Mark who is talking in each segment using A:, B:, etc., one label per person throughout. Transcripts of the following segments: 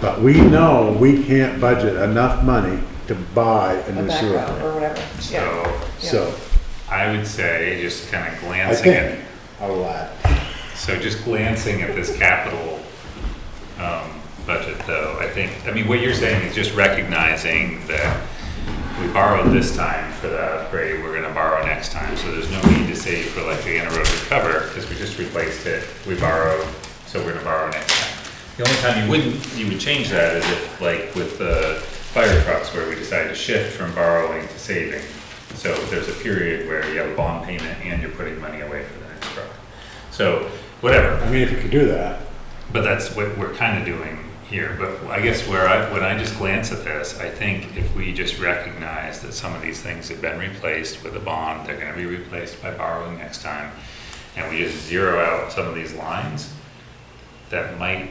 A: But we know we can't budget enough money to buy a
B: a
A: new sewer
B: background
A: plant.
B: or whatever, yeah.
C: So
A: So,
C: I would say, just kind of
A: I
C: glancing
A: think,
C: at,
A: a lot.
C: so just glancing at this capital um, budget though, I think, I mean, what you're saying is just recognizing that we borrowed this time for the upgrade, we're gonna borrow next time, so there's no need to save for like the anaerobic cover, because we just replaced it, we borrowed, so we're gonna borrow next time. The only time you wouldn't, you would change that is if, like, with the fire trucks, where we decided to shift from borrowing to saving. So there's a period where you have a bond payment and you're putting money away for the next truck. So, whatever,
A: I mean, if you could do that,
C: but that's what we're kind of doing here, but I guess where I, when I just glance at this, I think if we just recognize that some of these things have been replaced with a bond, they're gonna be replaced by borrowing next time, and we just zero out some of these lines, that might,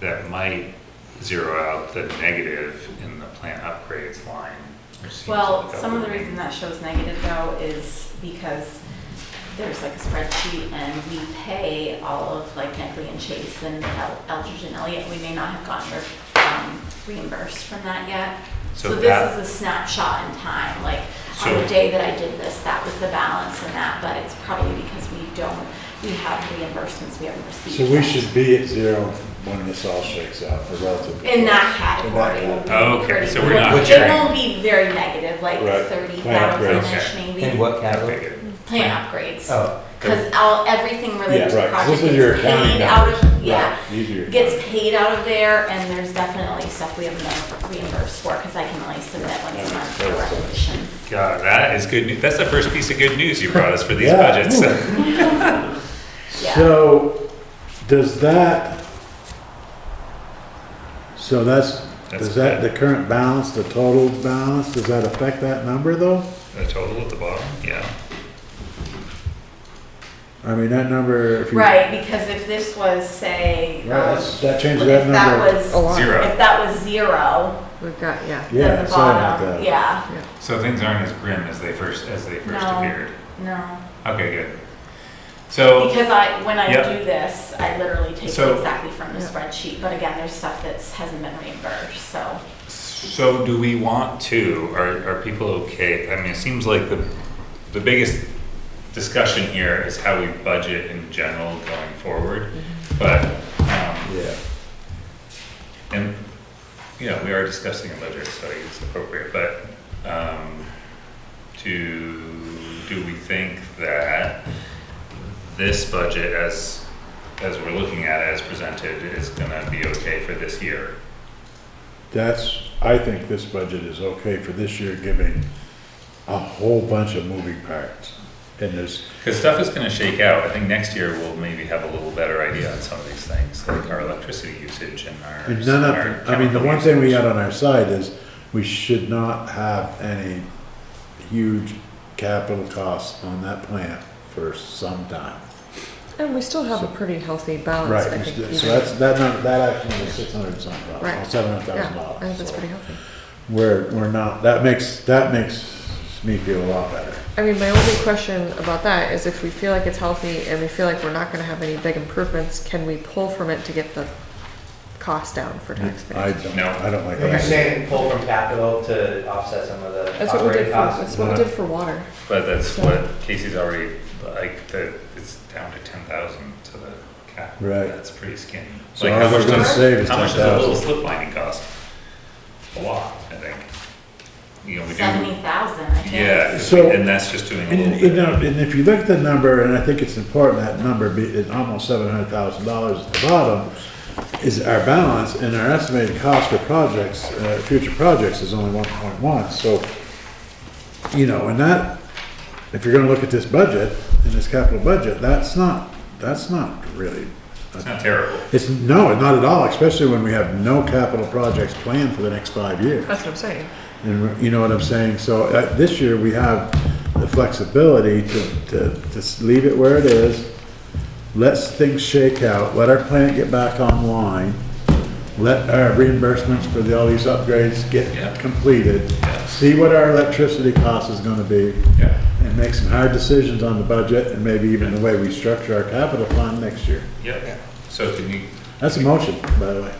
C: that might zero out the negative in the plant upgrades line. which seems
D: Well,
C: like a
D: some of the
C: little-
D: reason that shows negative though is because there's like a spreadsheet and we pay all of like Neckley and Chase and El- Eldridge and Elliott. We may not have gotten re- um, reimbursed from that yet.
C: So
D: So
C: that-
D: this is a snapshot in time, like on
C: So-
D: the day that I did this, that was the balance and that, but it's probably because we don't, we have reimbursements we haven't received.
A: so we
D: yet.
A: should be at zero when this all shakes out, or relatively.
D: In that category.
A: In that
C: category. Okay, so we're not
D: It
C: sharing.
D: won't be very negative, like
A: Right.
D: thirty
A: Plant upgrades.
D: thousand-ish maybe.
E: In what category?
C: Negative.
D: Plant upgrades.
E: Oh,
D: Cause all, everything
A: Yeah,
D: related to the
A: right, 'cause
D: project
A: this is your
D: gets
A: accounting
D: paid out
A: numbers.
D: of,
A: Right,
D: yeah,
A: these are your
D: gets
A: numbers.
D: paid out of there, and there's definitely stuff we haven't been reimbursed for, cause I can only submit once a
A: Yeah,
D: month
A: that
D: for
A: makes sense.
D: resolutions.
C: God, that is good, news. that's the first piece of good news you brought us for these
A: Yeah.
C: budgets.
D: Yeah.
A: So, does that, so that's,
C: That's
A: does that, the current balance, the total balance, does that affect that number though?
C: The total at the bottom, yeah.
A: I mean, that number, if you.
D: Right, because if this was, say,
A: Right,
D: um,
A: that's- that
D: if
A: changes that
D: that
A: number.
D: was,
C: Zero.
D: if that was zero,
B: We've got, yeah.
A: Yeah,
D: then the
A: sorry about
D: bottom,
A: that.
D: yeah,
C: So things aren't as grim as they first as they first
D: No.
C: appeared.
D: no.
C: Okay, good. So
D: Because I, when I
C: Yep.
D: do this, I literally take
C: So-
D: it exactly from the
B: Yeah.
D: spreadsheet, but again, there's stuff that hasn't been reimbursed, so.
C: so do we want to? Are are people okay? I mean, it seems like the the biggest discussion here is how we budget in general going forward. But um,
A: Yeah,
C: and you know we are discussing a budget, so it's appropriate. But um, do do we think that this budget as as we're looking at it as presented is gonna be okay for this year?
A: that's, I think this budget is okay for this year, giving a whole bunch of moving parts. And there's,
C: Because stuff is gonna shake out. I think next year we'll maybe have a little better idea on some of these things, like our electricity usage and our.
A: and none
C: our
A: of, I mean, the
C: chemical
A: one thing we
C: usage.
A: got on our side is, we should not have any huge capital costs on that plant for some time.
B: And we still have a pretty healthy balance,
A: Right,
B: I
A: we
B: think.
A: should-
B: even-
A: so that's, that, number- that actually is six hundred and something
B: Right.
A: dollars, seven hundred
B: Yeah,
A: thousand dollars.
B: I think that's pretty healthy.
A: We're, we're not, that makes, that makes me feel a lot better.
B: I mean, my only question about that is if we feel like it's healthy and we feel like we're not gonna have any big improvements, can we pull from it to get the cost down for
A: I
B: taxpayers?
A: don't,
C: No.
A: I don't like
E: You're
A: that.
E: saying pull from capital to offset some of the
B: That's what we did for,
E: operating costs?
B: that's what we did for water.
C: But that's what Casey's already, like, the, it's down to ten thousand to the cap.
A: Right.
C: That's pretty skinny.
A: So
C: Like,
A: all
C: how
A: we're
C: much
A: gonna
C: does-
A: save is
C: How much does a little
A: 10,000?
C: slip lining cost? A lot, I think. You know, we do.
D: Seventy thousand, I think.
C: Yeah,
A: So-
C: and that's just doing a
A: And,
C: little
A: you
C: bit.
A: know, and if you look at the number, and I think it's important, that number be, is almost seven hundred thousand dollars at the bottom, is our balance, and our estimated cost for projects, uh, future projects is only one point one, so, you know, and that, if you're gonna look at this budget, and this capital budget, that's not, that's not really,
C: It's not terrible.
A: it's, no, not at all, especially when we have no capital projects planned for the next five years.
B: That's what I'm saying.
A: And you know what I'm saying? So uh, this year, we have the flexibility to, to just leave it where it is. Let things shake out, let our plant get back online, let our reimbursements for the- all these upgrades
C: Yeah.
A: get completed.
C: Yeah.
A: See what our electricity cost is gonna be.
C: Yeah.
A: And make some hard decisions on the budget and maybe even the way we structure our capital fund next year.
C: Yep. So can you
A: That's a motion, by the way.